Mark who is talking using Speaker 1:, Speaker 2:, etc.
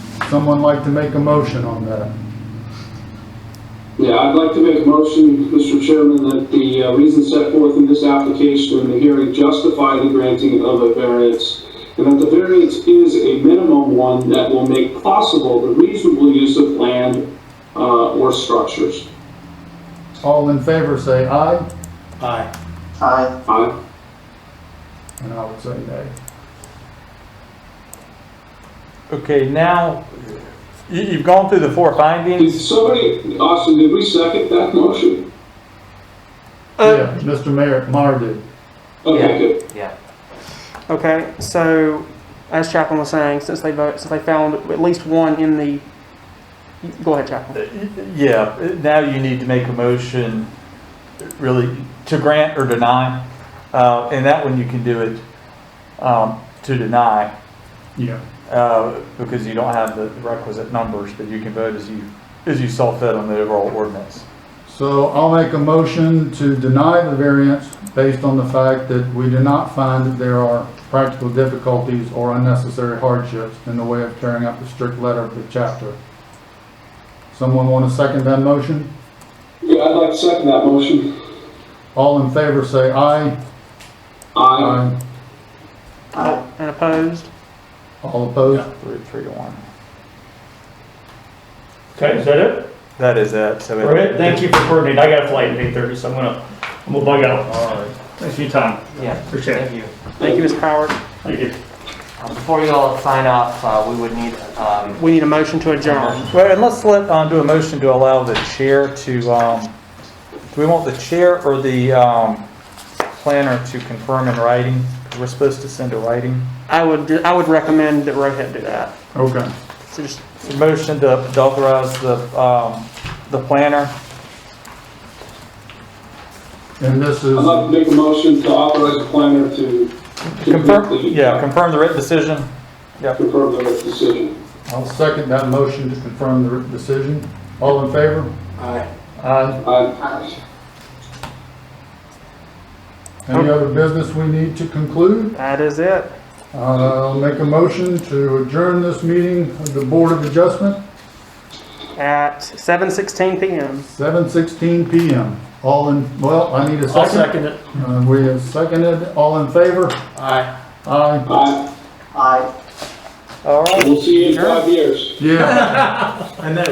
Speaker 1: Someone like to make a motion on that?
Speaker 2: Yeah, I'd like to make a motion, Mr. Chairman, that the uh, reasons set forth in this application and the hearing justify the granting of a variance, and that the variance is a minimum one that will make possible the reasonable use of land uh, or structures.
Speaker 1: All in favor, say aye,
Speaker 3: Aye.
Speaker 4: Aye.
Speaker 2: Aye.
Speaker 1: and I would say nay.
Speaker 3: Okay, now, you, you've gone through the four
Speaker 2: Did
Speaker 3: findings.
Speaker 2: somebody, Austin, did we second that motion? Uh,
Speaker 1: Yeah, Mr. Mayor, Mar did.
Speaker 2: Okay, good.
Speaker 3: Yeah.
Speaker 5: Okay, so as Chaplain was saying, since they vote, since they found at least one in the, go ahead, Chaplain.
Speaker 3: Yeah, now you need to make a motion, really, to grant or deny. Uh, and that one you can do it, um, to deny,
Speaker 1: Yeah.
Speaker 3: uh, because you don't have the requisite numbers, but you can vote as you, as you saw fit on the overall ordinance.
Speaker 1: So I'll make a motion to deny the variance based on the fact that we do not find that there are practical difficulties or unnecessary hardships in the way of carrying out the strict letter of the chapter. Someone want to second that motion?
Speaker 2: Yeah, I'd like to second that motion.
Speaker 1: All in favor, say aye.
Speaker 3: Uh,
Speaker 2: Aye.
Speaker 4: Aye.
Speaker 5: Uh, And opposed?
Speaker 1: All opposed?
Speaker 3: Three, three to one.
Speaker 6: Okay, is that it?
Speaker 3: That is it, so. it-
Speaker 6: All right, thank you for coordinating. I got a flight at eight thirty, so I'm gonna, I'm gonna bug out.
Speaker 1: All right.
Speaker 6: Thanks for your time.
Speaker 7: Yeah,
Speaker 6: Appreciate it.
Speaker 7: thank you.
Speaker 5: Thank you, Ms. Howard.
Speaker 6: Thank you.
Speaker 7: Uh, Before you all sign off, uh, we would need, um,
Speaker 5: We need a motion to adjourn.
Speaker 3: Well, and let's let, uh, do a motion to allow the chair to, um, do we want the chair or the, um, planner to confirm in writing? We're supposed to send a writing.
Speaker 5: I would, I would recommend that Rohit do that.
Speaker 1: Okay.
Speaker 5: So just,
Speaker 3: So Motion to to authorize the, um, the planner.
Speaker 1: And this
Speaker 2: I'd
Speaker 1: is,
Speaker 2: like to make a motion to authorize the planner to to
Speaker 3: Confirm,
Speaker 2: complete- uh,
Speaker 3: yeah, confirm the written decision.
Speaker 2: Confirm the decision.
Speaker 1: I'll second that motion to confirm the written decision. All in favor?
Speaker 4: Aye.
Speaker 3: Uh,
Speaker 1: Aye.
Speaker 2: Aye.
Speaker 1: Any other business we need to conclude?
Speaker 5: that is it.
Speaker 1: I'll make a motion to adjourn this meeting of the Board of Adjustment,
Speaker 5: At 7:16 PM.
Speaker 1: 7:16 PM. All in, well, I need a
Speaker 6: I'll
Speaker 1: second.
Speaker 6: second it.
Speaker 1: Uh, We have seconded, all in favor?
Speaker 4: Aye.
Speaker 1: Aye.
Speaker 2: Aye.
Speaker 4: Aye.
Speaker 3: All right.
Speaker 2: We'll see you in five years.
Speaker 1: Yeah.
Speaker 6: I know.